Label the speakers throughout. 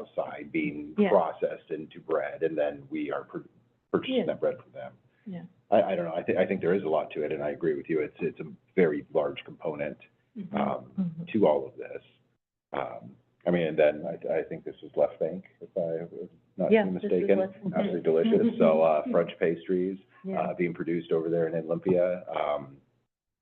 Speaker 1: outside being
Speaker 2: Yeah.
Speaker 1: processed into bread, and then we are pur-
Speaker 2: Yeah.
Speaker 1: purchasing that bread from them.
Speaker 2: Yeah.
Speaker 1: I, I don't know, I think, I think there is a lot to it, and I agree with you, it's, it's a very large component, um,
Speaker 2: Mhm.
Speaker 1: to all of this. Um, I mean, and then I, I think this is Left Bank, if I'm not
Speaker 2: Yeah, this is
Speaker 1: mistaken.
Speaker 2: Left Bank.
Speaker 1: Absolutely delicious, so, uh,
Speaker 2: Mhm.
Speaker 1: French pastries,
Speaker 2: Yeah.
Speaker 1: uh, being produced over there in Olympia. Um,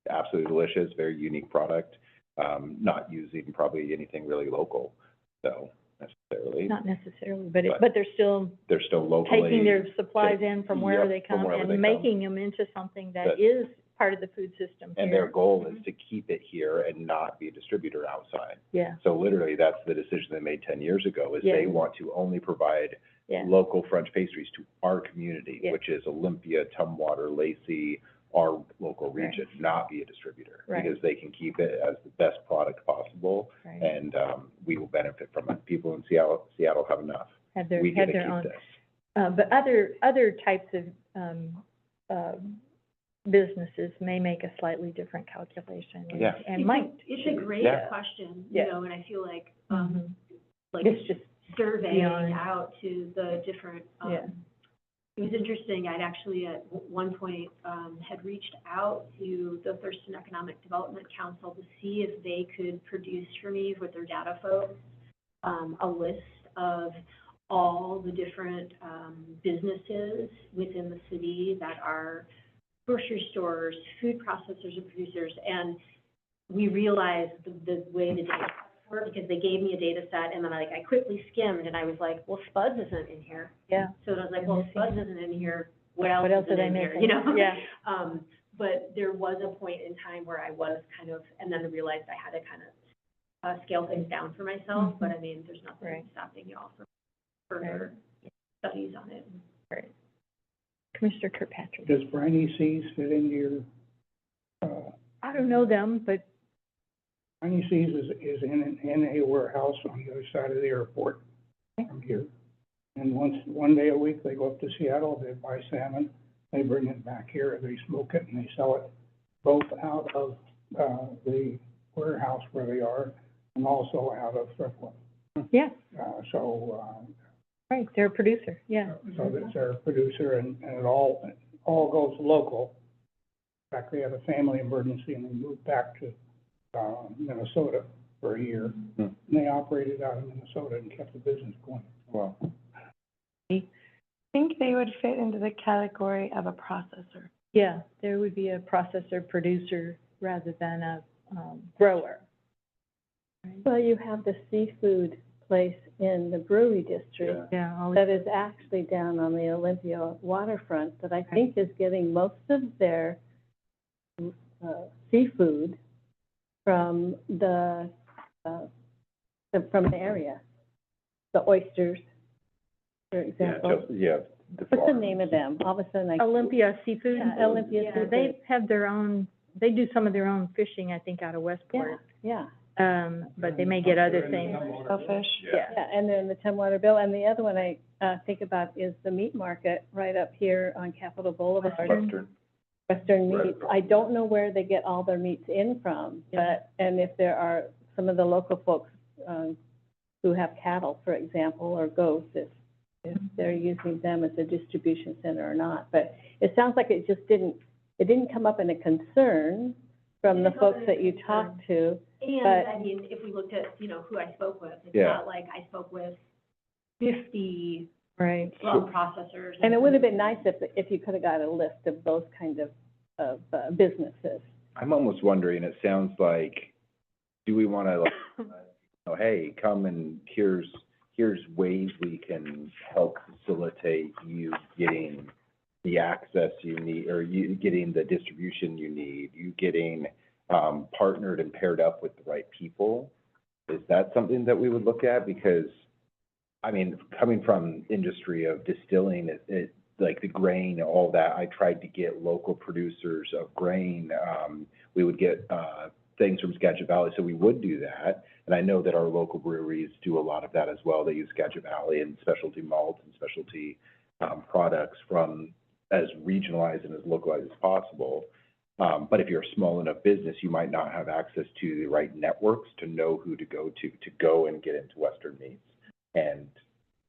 Speaker 1: absolutely delicious, very unique product, um, not using probably anything really local, so necessarily.
Speaker 2: Not necessarily, but it,
Speaker 1: but-
Speaker 2: but they're still
Speaker 1: They're still locally.
Speaker 2: taking their supplies in from wherever
Speaker 1: Yep,
Speaker 2: they
Speaker 1: from
Speaker 2: come
Speaker 1: wherever they
Speaker 2: and
Speaker 1: come.
Speaker 2: making them into something that
Speaker 1: That-
Speaker 2: is part of the food system
Speaker 1: And their
Speaker 2: here.
Speaker 1: goal is to keep it here and not be a distributor outside.
Speaker 2: Yeah,
Speaker 1: So literally, that's the decision they made ten years ago, is they
Speaker 2: Yeah.
Speaker 1: want to only provide
Speaker 2: yeah,
Speaker 1: local French pastries to our community,
Speaker 2: Yeah.
Speaker 1: which is Olympia, Tumwater, Lacey, our local
Speaker 2: Right.
Speaker 1: region, not be a distributor.
Speaker 2: Right.
Speaker 1: Because they can keep it as the best product possible,
Speaker 2: right.
Speaker 1: and, um, we will benefit from it. People in Seattle, Seattle have enough.
Speaker 2: Have their,
Speaker 1: We get
Speaker 2: have
Speaker 1: to
Speaker 2: their own.
Speaker 1: keep this.
Speaker 2: Uh, but other, other types of, um, um, businesses may make a slightly different calculation and-
Speaker 1: Yeah.
Speaker 2: and might.
Speaker 3: It's a great
Speaker 1: Yeah.
Speaker 3: question, you
Speaker 2: Yeah.
Speaker 3: know, and I feel like, um,
Speaker 2: Mhm.
Speaker 3: like
Speaker 2: It's just, beyond-
Speaker 3: surveying out to the different,
Speaker 2: Yeah.
Speaker 3: um, it was interesting, I'd actually at w- one point, um, had reached out to the Thurston Economic Development Council to see if they could produce for me with their data folks, um, a list of all the different, um, businesses within the city that are grocery stores, food processors and producers, and we realized the, the way the data were, because they gave me a data set, and then I, like, I quickly skimmed, and I was like, well, Spuds isn't in here.
Speaker 2: yeah.
Speaker 3: So then I was like,
Speaker 4: Mm-hmm.
Speaker 3: well, if Spuds isn't in here, what else
Speaker 2: What else are
Speaker 3: isn't
Speaker 2: they
Speaker 3: in here,
Speaker 2: missing?
Speaker 3: you know?
Speaker 2: Yeah,
Speaker 3: Um, but there was a point in time where I was kind of, and then I realized I had to kind of, uh, scale things down for myself,
Speaker 4: Mm-hmm.
Speaker 3: but I mean, there's
Speaker 2: Right.
Speaker 3: nothing stopping y'all from further studies on it.
Speaker 2: Commissioner Kirkpatrick.
Speaker 5: Does briny Seas fit into your, uh,
Speaker 2: I don't know them, but
Speaker 5: briny Seas is, is in, an- in a warehouse on the other side of the airport from here. And once, one day a week, they go up to Seattle, they buy salmon, they bring it back here, they smoke it and they sell it both out of, uh, the warehouse where they are and also out of Thriftwood.
Speaker 2: yeah,
Speaker 5: Uh, so, uh,
Speaker 2: right, they're a producer, yeah.
Speaker 5: so that's our producer, and, and it all, all goes local. In fact, they had a family emergency and they moved back to, uh, Minnesota for a year.
Speaker 1: Hmm.
Speaker 5: And they operated out of Minnesota and kept the business going.
Speaker 1: Well,
Speaker 6: think they would fit into the category of a processor.
Speaker 2: Yeah, there would be a processor, producer, rather than a um, grower.
Speaker 4: Well, you have the seafood place in the brewery district
Speaker 1: yeah,
Speaker 2: Yeah, all
Speaker 4: that is actually down on the Olympia waterfront that I think is getting most of their uh, seafood from the, uh, the- from the area. The oysters, for
Speaker 1: yeah,
Speaker 4: example.
Speaker 1: just, yeah. the
Speaker 4: What's the
Speaker 1: farms.
Speaker 4: name of them? All of a sudden I.
Speaker 2: Olympia Seafood.
Speaker 4: Yeah, Olympia
Speaker 2: Yeah,
Speaker 4: Seafood.
Speaker 2: They have their own, they do some of their own fishing, I think, out of
Speaker 4: Yeah,
Speaker 2: Westport.
Speaker 4: yeah,
Speaker 2: Um, but they may get other things.
Speaker 6: Shellfish.
Speaker 1: Yeah.
Speaker 4: yeah. And then the Tumwater Bill. And the other one I uh, think about is the meat market right up here on Capitol Boulevard.
Speaker 2: Western.
Speaker 1: Western.
Speaker 4: Western
Speaker 1: Right
Speaker 4: meats.
Speaker 1: across
Speaker 4: I don't know where they get all their meats in from,
Speaker 2: Yeah.
Speaker 4: but, and if there are some of the local folks, um, who have cattle, for example, or goats, if, if they're using them as a distribution center or not. But it sounds like it just didn't, it didn't come up in a concern from the
Speaker 3: Didn't come up
Speaker 4: folks
Speaker 3: in a
Speaker 4: that you talked to.
Speaker 3: And,
Speaker 4: But-
Speaker 3: I mean, if we looked at, you know, who I spoke with, it's
Speaker 1: Yeah.
Speaker 3: not like I spoke with fifty
Speaker 2: Right.
Speaker 3: rum processors.
Speaker 4: And it would have been nice if, if you could have got a list of those kind of, of uh, businesses.
Speaker 1: I'm almost wondering, it sounds like, do we wanna like, uh, oh, hey, come and here's, here's ways we can help facilitate you getting the access you need, or you getting the distribution you need, you getting, um, partnered and paired up with the right people? Is that something that we would look at? Because, I mean, coming from industry of distilling, it, it, like the grain, all that, I tried to get local producers of grain, um, we would get, uh, things from Skagit Valley, so we would do that. And I know that our local breweries do a lot of that as well, they use Skagit Valley and specialty malts and specialty, um, products from as regionalized and as localized as possible. Um, but if you're a small enough business, you might not have access to the right networks to know who to go to, to go and get into Western meats. and